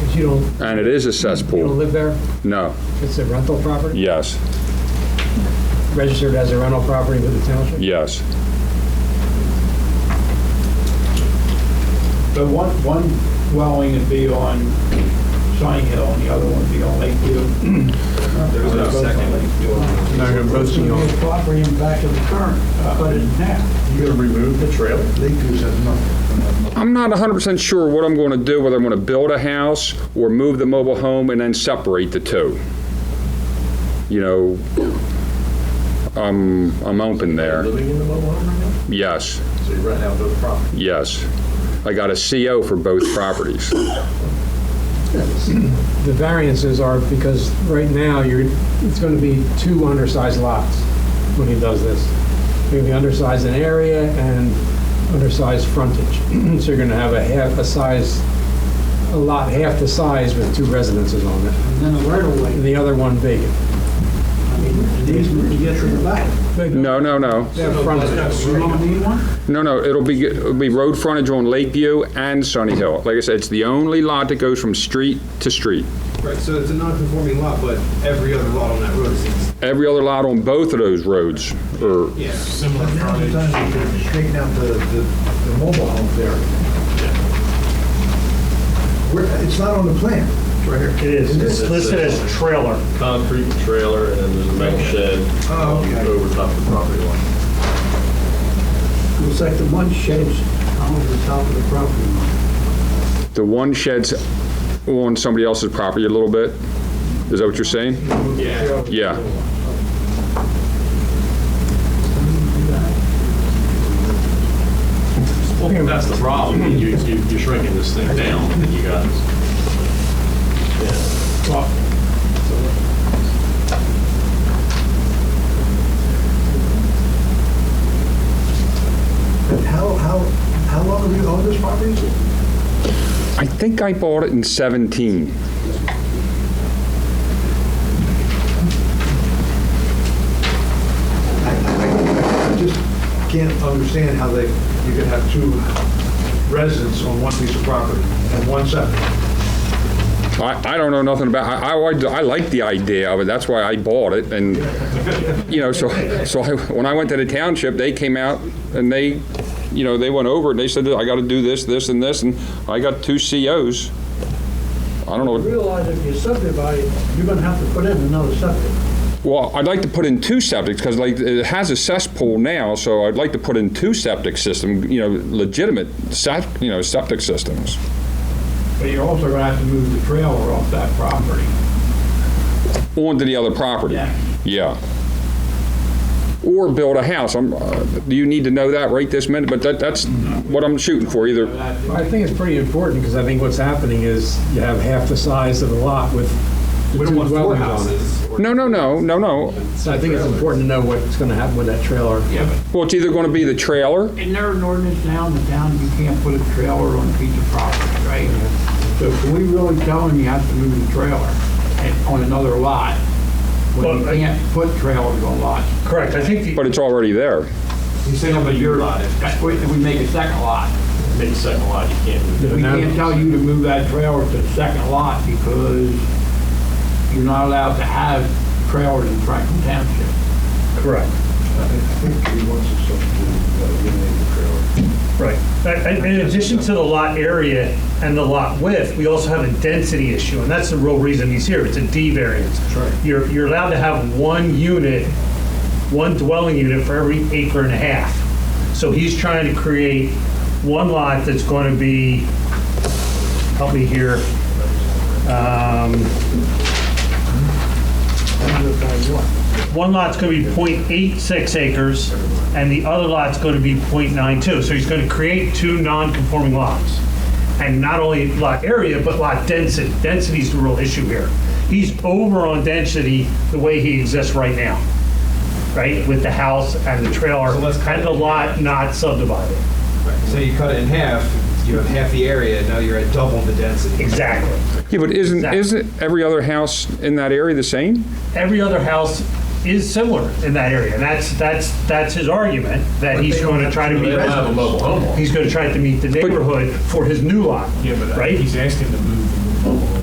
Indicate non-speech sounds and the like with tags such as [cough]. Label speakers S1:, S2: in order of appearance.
S1: Because you don't,
S2: And it is a
S1: you don't
S2: cesspool.
S1: live there,
S2: No,
S1: it's a rental property,
S2: yes,
S1: registered as a rental property with the township?
S2: yes.
S3: But one, one dwelling would be on Shine Hill and the other one would be on Lakeview. There's no second Lakeview.
S4: Now you're
S5: It's
S4: posting
S5: gonna
S4: on,
S5: be a property in back of the current,
S3: uh,
S5: but in half.
S4: you're gonna remove the trail? They do that, nothing.
S2: I'm not 100% sure what I'm going to do, whether I'm going to build a house or move the mobile home and then separate the two. You know, I'm, I'm open there.
S4: Living in the mobile home right
S2: Yes,
S4: now? So you rent out those properties?
S2: yes. I got a CO for both properties.
S1: The variances are because right now, you're, it's gonna be two undersized lots when he does this. You're gonna be undersized in area and undersized frontage. [clears throat] So you're gonna have a half a size, a lot half the size with two residences on it,
S5: And then the right of
S1: and
S5: way,
S1: the other one vacant.
S5: I mean, an easement to get to the back.
S2: No, no, no.
S1: They have frontage.
S5: You don't need one?
S2: No, no, it'll be, it'll be road frontage on Lakeview and Sunny Hill. Like I said, it's the only lot that goes from street to street.
S6: Right, so it's a non-conforming lot, but every other lot on that road is,
S2: Every other lot on both of those roads are,
S6: yeah.
S4: Similar
S5: Now you're done, you can straighten out the, the, the mobile home there. Where, it's not on the plan. It's right here.
S7: It is, it's listed as trailer.
S8: concrete trailer and then there's a metal shed um,
S5: Oh, okay.
S8: over top of the property line.
S5: Looks like the one sheds on the top of the property line.
S2: the one shed's on somebody else's property a little bit. Is that what you're saying?
S8: Yeah.
S2: Yeah,
S8: Well, that's the problem. You, you- you're shrinking this thing down and you got.
S5: But how, how, how long have you owned this property?
S2: I think I bought it in 17.
S5: I, I, I just can't understand how they, you could have two residents on one piece of property and one septic.
S2: I, I don't know nothing about, I, I, liked- I like the idea of it, that's why I bought it, and, you know, so, so I, when I went to the township, they came out and they, you know, they went over and they said, I gotta do this, this, and this, and I got two COs. I don't know,
S5: Realize if you subdivide, you're gonna have to put in another septic.
S2: well, I'd like to put in two septics, because like, it has a cesspool now, so I'd like to put in two septic system, you know, legitimate sept, you know, septic systems.
S3: But you're also gonna have to move the trailer off that property.
S2: onto the other property.
S3: Yeah.
S2: Yeah. Or build a house. I'm, uh, do you need to know that right this minute? But that, that's what I'm shooting for, either,
S1: I think it's pretty important, because I think what's happening is you have half the size of the lot with
S6: We
S1: the
S6: don't
S1: two
S6: want four
S1: dwellings on it.
S6: houses. or-
S2: no, no, no, no, no.
S1: So I think it's important to know what's gonna happen with that trailer.
S6: Yeah, but
S2: Well, it's either gonna be the trailer,
S3: Isn't there an ordinance now in the town, you can't put a trailer on a piece of property, right? So can we really tell them you have to move the trailer and- on another lot? When you
S7: Well, I-
S3: can't put trailers on lots?
S7: Correct, I think the,
S2: but it's already there.
S3: You say on
S8: but you're not.
S3: If we if we make a second lot,
S8: Make a second lot, you can't move
S3: we can't tell you to move that trailer to the second lot because you're not allowed to have trailers in Franklin Township.
S7: correct,
S5: I think he wants to subdivide, uh, eliminate the trailer.
S7: right. I- I- In addition to the lot area and the lot width, we also have a density issue, and that's the real reason he's here, it's a D variance.
S5: right.
S7: You're, you're allowed to have one unit, one dwelling unit for every acre and a half. So he's trying to create one lot that's going to be, help me here, um, one lot's gonna be .86 acres, and the other lot's gonna be .92. So he's gonna create two non-conforming lots. And not only lot area, but lot density. Density's the real issue here. He's over on density the way he exists right now, right? With the house and the trailer,
S6: So let's cut
S7: and the
S6: it.
S7: lot not subdivided.
S6: So you cut it in half, you have half the area, now you're at double the density.
S7: Exactly.
S2: Yeah, but isn't,
S7: Exactly.
S2: isn't every other house in that area the same?
S7: Every other house is similar in that area, and that's, that's, that's his argument, that he's gonna try to
S8: They
S7: meet.
S8: don't have a mobile home on it.
S7: He's gonna try to meet the neighborhood for his new lot,
S4: Yeah, but
S7: right?
S4: he's asking to move the mobile home.